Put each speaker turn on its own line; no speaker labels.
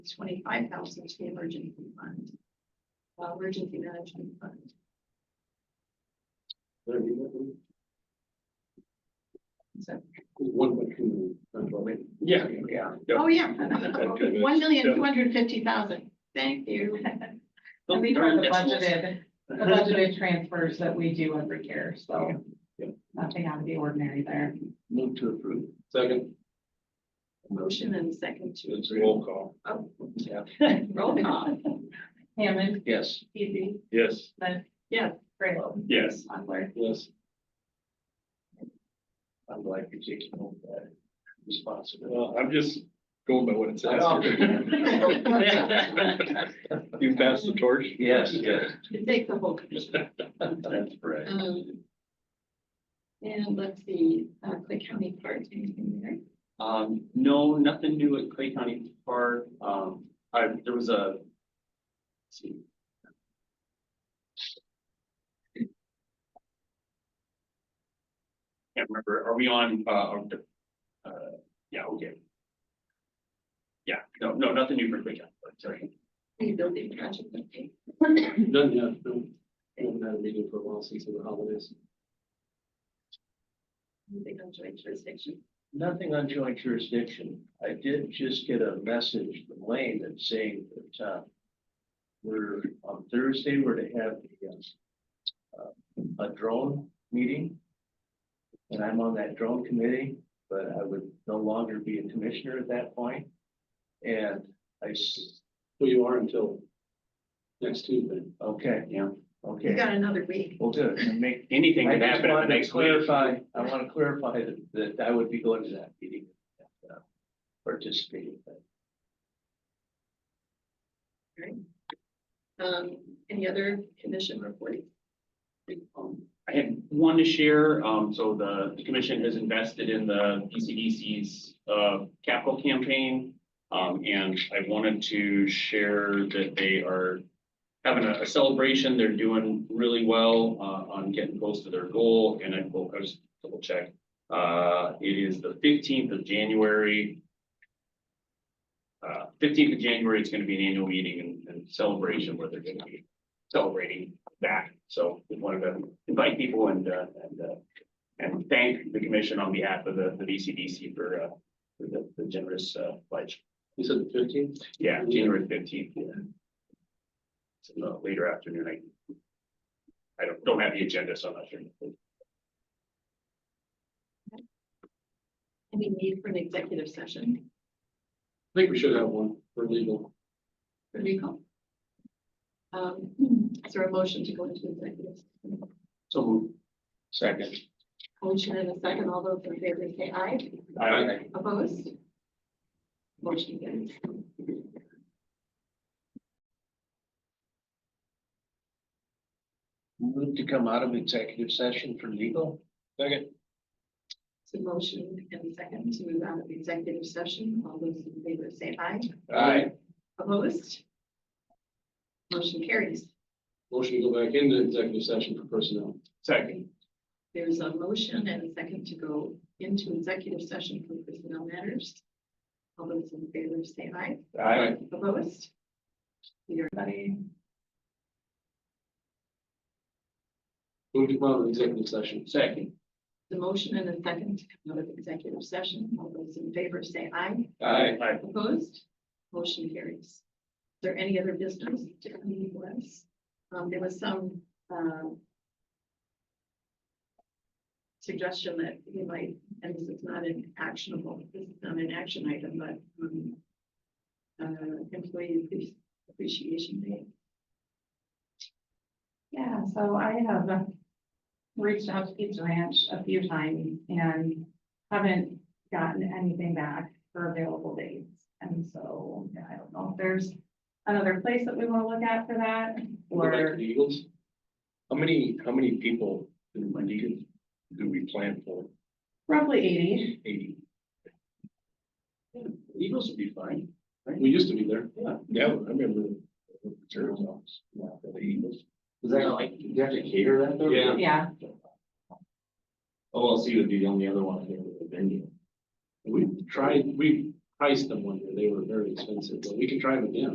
twenty-five thousand to the emergency fund. uh, Emergency management fund. So,
One point two. Yeah, yeah.
oh, yeah.
Okay.
One million, two hundred and fifty thousand. Thank you.
And these are the budgeted, the budgeted transfers that we do every year, so.
Yeah.
Nothing out of the ordinary there.
Move to approve. Second.
Motion and second to
It's a roll call.
Oh.
Yeah.
roll call.
Hammond,
Yes.
Easy,
Yes.
Lynn.
Yeah.
Graylow,
Yes.
Mochler.
Yes. I'm glad you're taking on that responsibility.
Well, I'm just going by what it
I
says.
know.
You passed the torch?
Yes, yes.
Take the whole. commission.
That's right.
Um, And let's see, uh, Clay County Park, anything there?
Um, no, nothing new at Clay County Park. Um, I, there was a. let's see. Can't remember, are we on, uh, on the- uh, yeah, okay. Yeah, no, no, nothing new for Clay County, Park, sorry.
Any building project, okay.
Done, yeah. No, Haven't had a meeting for a while since the holidays.
Moving on to jurisdiction.
Nothing on joint jurisdiction. I did just get a message from Lane that's saying that, uh, we're, on Thursday, we're to have uh, a, a drone meeting. And I'm on that drone committee, but I would no longer be a commissioner at that point. And I, s-
Well, you are until next Tuesday.
okay.
Yeah.
You
Okay,
got another week.
well, good. I make-
Anything
I
can
just
happen in the
wanted to
next week.
clarify, I want to clarify that, that I would be going to that meeting. uh, Participating.
Um, any other commission reporting?
Um, I had one to share, um, so the, the commission has invested in the PCDC's, uh, capital campaign. Um, and I wanted to share that they are having a a celebration, they're doing really well, uh, on getting close to their goal, and I will, I was double check. Uh, it is the fifteenth of January. Uh, fifteenth of January, it's gonna be an annual meeting and, and celebration where they're gonna be celebrating that, so we wanted to invite people and, uh, and, uh, and thank the commission on behalf of the, the VCDC for, uh, for the, the generous, uh, pledge.
You said the fifteenth?
Yeah, January fifteenth, yeah. It's in the later afternoon, I, I don't, don't have the agenda, so I'm not sure.
Any need for an executive session?
I think we should have one for legal.
What do you call? Um, is there a motion to go into executive? session?
So.
Second.
Motion and a second, all those in favor say aye.
I,
Opposed? Motion carries.
Move to come out of executive session for legal?
Second.
So motion and second to move out of executive session, all those in favor say aye.
Aye.
Opposed? Motion carries.
Motion to go back into executive session for personnel.
second,
There's a motion and a second to go into executive session for personnel matters. All those in favor say aye.
Aye.
Opposed? Everybody,
Move to come out of executive session.
second,
the motion and a second to come out of executive session. All those in favor say aye.
Aye.
I,
Opposed? Motion carries. Is there any other business to come before us? Um, there was some, um, suggestion that we might, and this is not an actionable, this is not an action item, but, um, uh, employee appre- appreciation day.
Yeah, so I have uh, reached out to Pizza Ranch a few times and haven't gotten anything back for available dates. And so yeah, I don't know if there's another place that we want to look at for that
Go back to
or
the Eagles.
How many, how many people do we need, do we plan for?
roughly eighty.
Eighty?
Eagles would be fine.
We used to be there.
Yeah. Yeah, I remember. the Turtles, yeah, the Eagles.
Is that like, do you have to cater that though?
Yeah.
Yeah,
OLC would be the only other one I think with a venue.
We tried, we
priced them one year, they were very expensive, but we can try them again.